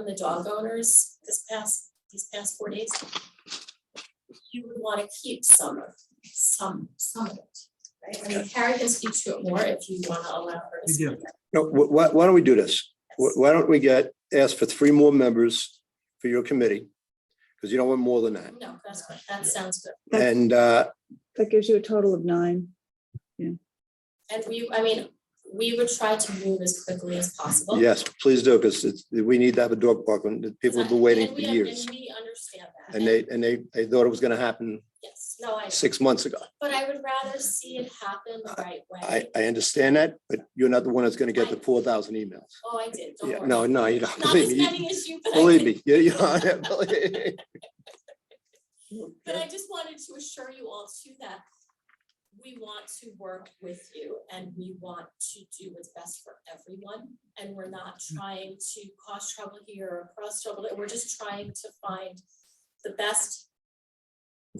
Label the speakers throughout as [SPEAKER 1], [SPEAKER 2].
[SPEAKER 1] from the dog owners this past, these past four days. You would wanna keep some of, some, some of it, right? I mean, Carrie can speak to it more if you wanna allow her to
[SPEAKER 2] You do.
[SPEAKER 1] speak.
[SPEAKER 3] No, wh- why, why don't we do this? Wh- Why don't we get, ask for three more members for your committee? Because you don't want more than that.
[SPEAKER 1] No, that's fine, that sounds good.
[SPEAKER 4] That's-
[SPEAKER 3] And, uh,
[SPEAKER 4] That gives you a total of nine.
[SPEAKER 1] And we, I mean, we would try to move as quickly as possible.
[SPEAKER 3] yes, please do, because we need to have a dog park, and the people have been waiting
[SPEAKER 1] And
[SPEAKER 3] for
[SPEAKER 1] we-
[SPEAKER 3] years.
[SPEAKER 1] And we understand that.
[SPEAKER 3] And they, and they, they thought it was gonna happen
[SPEAKER 1] Yes, no, I,
[SPEAKER 3] six months ago.
[SPEAKER 1] but I would rather see it happen the right way.
[SPEAKER 3] I, I understand that, but you're not the one that's gonna get the four thousand emails.
[SPEAKER 1] Oh, I did, don't
[SPEAKER 3] Yeah,
[SPEAKER 1] worry.
[SPEAKER 3] no, no, you don't,
[SPEAKER 1] Not as
[SPEAKER 3] believe me,
[SPEAKER 1] many as you, but I
[SPEAKER 3] believe
[SPEAKER 1] did.
[SPEAKER 3] me, you, you, believe-
[SPEAKER 1] But I just wanted to assure you all too that we want to work with you and we want to do what's best for everyone. And we're not
[SPEAKER 5] Mm.
[SPEAKER 1] trying to cause trouble here or cause trouble, there. we're just trying to find the best,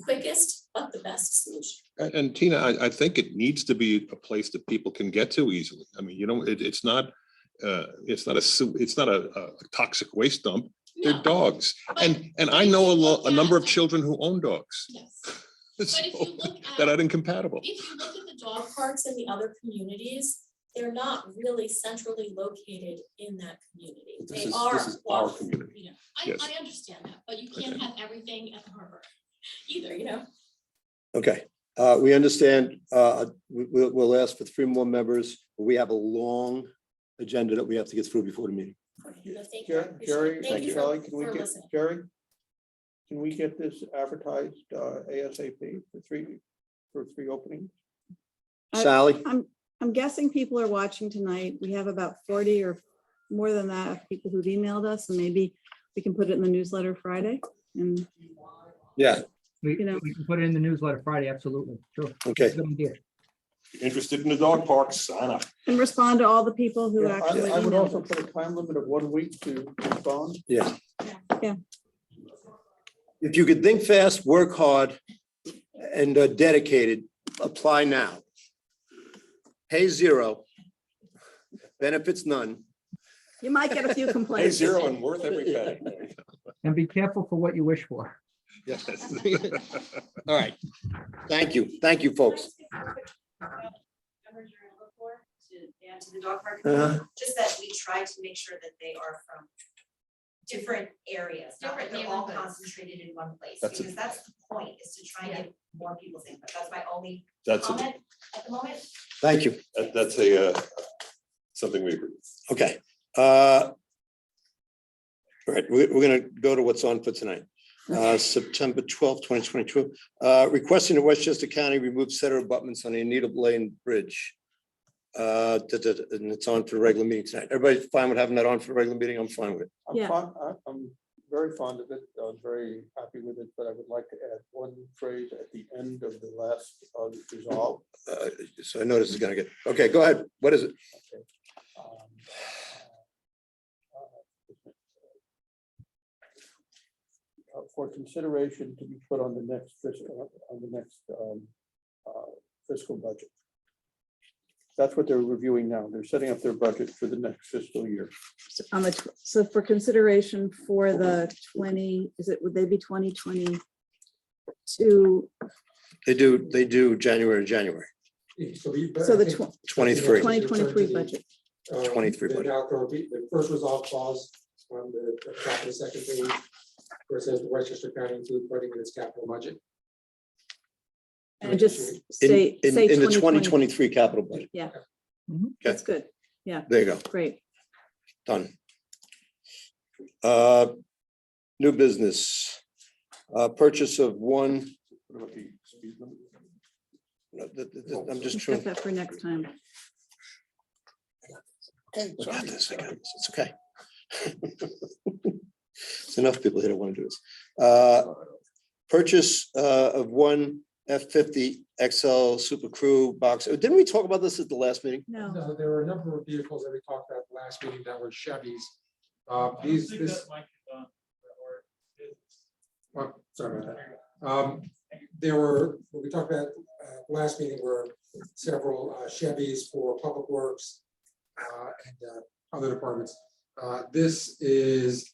[SPEAKER 1] quickest, but the best solution.
[SPEAKER 5] And, and Tina, I, I think it needs to be a place that people can get to easily. I mean, you know, it, it's not, uh, it's not a, su- it's not a, a toxic waste dump. They're
[SPEAKER 1] No,
[SPEAKER 5] dogs.
[SPEAKER 1] but-
[SPEAKER 5] And, and I know a lo, a number of children who own dogs.
[SPEAKER 1] Yes, but if you
[SPEAKER 5] so,
[SPEAKER 1] look
[SPEAKER 5] That
[SPEAKER 1] at,
[SPEAKER 5] are incompatible.
[SPEAKER 1] if you look at the dog parks in the other communities, they're not really centrally located in that community.
[SPEAKER 5] This
[SPEAKER 1] They
[SPEAKER 5] is-
[SPEAKER 1] are.
[SPEAKER 5] this is our
[SPEAKER 1] off-
[SPEAKER 5] community.
[SPEAKER 1] you know, I,
[SPEAKER 5] Yes.
[SPEAKER 1] I understand that, but you can't have everything at the harbor either, you know?
[SPEAKER 3] Okay, uh, we understand, uh, we, we'll, we'll ask for three more members. We have a long agenda that we have to get through before the meeting.
[SPEAKER 1] But thank you, I
[SPEAKER 6] Jer-
[SPEAKER 1] appreciate it.
[SPEAKER 6] Jerry,
[SPEAKER 1] Thank you for-
[SPEAKER 6] Kelly, can we
[SPEAKER 1] for
[SPEAKER 6] get,
[SPEAKER 1] listening.
[SPEAKER 6] Jerry? Can we get this advertised uh, ASAP for three, for three openings?
[SPEAKER 4] I-
[SPEAKER 3] Sally,
[SPEAKER 4] I'm, I'm guessing people are watching tonight. We have about forty or more than that of people who've emailed us, and maybe we can put it in the newsletter Friday. And
[SPEAKER 3] yeah,
[SPEAKER 2] We,
[SPEAKER 4] You know.
[SPEAKER 2] we can put it in the newsletter Friday, absolutely, sure.
[SPEAKER 3] okay,
[SPEAKER 2] Good idea.
[SPEAKER 5] Interested in the dog park, sign up.
[SPEAKER 4] and respond to all the people who
[SPEAKER 6] Yeah,
[SPEAKER 4] actually
[SPEAKER 6] I I would also
[SPEAKER 4] emailed.
[SPEAKER 6] put a time limit of one week to respond.
[SPEAKER 3] yeah.
[SPEAKER 4] Yeah.
[SPEAKER 3] If you could think fast, work hard, and are dedicated, apply now. Pay zero. Benefits none.
[SPEAKER 4] You might get a few complaints.
[SPEAKER 5] and worth
[SPEAKER 3] every penny.
[SPEAKER 2] And be careful for what you wish for.
[SPEAKER 5] Yes.
[SPEAKER 3] All right. Thank you, thank you, folks.
[SPEAKER 7] Number you're looking for to add to the dog park,
[SPEAKER 3] Uh-huh.
[SPEAKER 7] just that we try to make sure that they are from different areas, not that
[SPEAKER 1] Different
[SPEAKER 7] they're all
[SPEAKER 1] neighborhoods.
[SPEAKER 7] concentrated in one place,
[SPEAKER 5] That's a-
[SPEAKER 7] because that's the point, is to try and get more people's input, that's my only
[SPEAKER 5] That's,
[SPEAKER 7] comment at the moment.
[SPEAKER 3] Thank you.
[SPEAKER 5] that's a, uh, something we agree.
[SPEAKER 3] Okay. uh, All right, we're, we're gonna go to what's on for tonight. Uh, September twelfth, twenty twenty-two, uh, requesting that Westchester County remove set of abutments on the Anita Lane Bridge. Uh, da- da- da, and it's on for the regular meeting tonight. Everybody fine with having that on for the regular meeting? I'm fine with it.
[SPEAKER 6] I'm
[SPEAKER 4] Yeah.
[SPEAKER 6] fond, I- I'm very fond of it. I'm very happy with it, but I would like to add one phrase at the end of the last uh, resolve.
[SPEAKER 3] Uh, So I know this is gonna get, okay, go ahead. What is it?
[SPEAKER 6] um, uh, For consideration to be put on the next fiscal, on the next um, uh, fiscal budget. That's what they're reviewing now. They're setting up their budget for the next fiscal year.
[SPEAKER 4] On the, tw- so for consideration for the twenty, is it, would they be twenty twenty-two?
[SPEAKER 3] They do, they do January, to January,
[SPEAKER 8] So we.
[SPEAKER 4] So the tw-
[SPEAKER 3] twenty-three,
[SPEAKER 4] twenty twenty-three budget.
[SPEAKER 8] um,
[SPEAKER 3] 23
[SPEAKER 8] the
[SPEAKER 3] budget.
[SPEAKER 8] outdoor re- The first resolve clause on the the top of the second page, where it says Westchester County include funding in its capital budget.
[SPEAKER 4] And just
[SPEAKER 3] in,
[SPEAKER 4] say,
[SPEAKER 3] in,
[SPEAKER 4] say
[SPEAKER 3] in the twenty
[SPEAKER 4] 2020.
[SPEAKER 3] twenty-three capital budget.
[SPEAKER 4] That's good.
[SPEAKER 3] There you go.
[SPEAKER 4] Great.
[SPEAKER 3] Done. Uh, New business, uh, purchase of one,
[SPEAKER 6] What about the speed limit? Oh.
[SPEAKER 3] no, th- th- th- I'm just
[SPEAKER 4] We'll Set
[SPEAKER 3] trying.
[SPEAKER 4] that for next time.
[SPEAKER 3] I got this, I got this, It's okay. It's enough people here that want to do this. Uh, Purchase uh, of one F fifty XL Super Crew box. Oh, Didn't we talk about this at the last meeting?
[SPEAKER 4] No.
[SPEAKER 8] No, there were a number of vehicles that we talked about last meeting that were Chevys. Uh, these, this. Well, sorry about that. Um, there were, what we talked about, uh, last meeting were several uh, Chevys for Public Works. Uh, and, uh, other departments. Uh, this is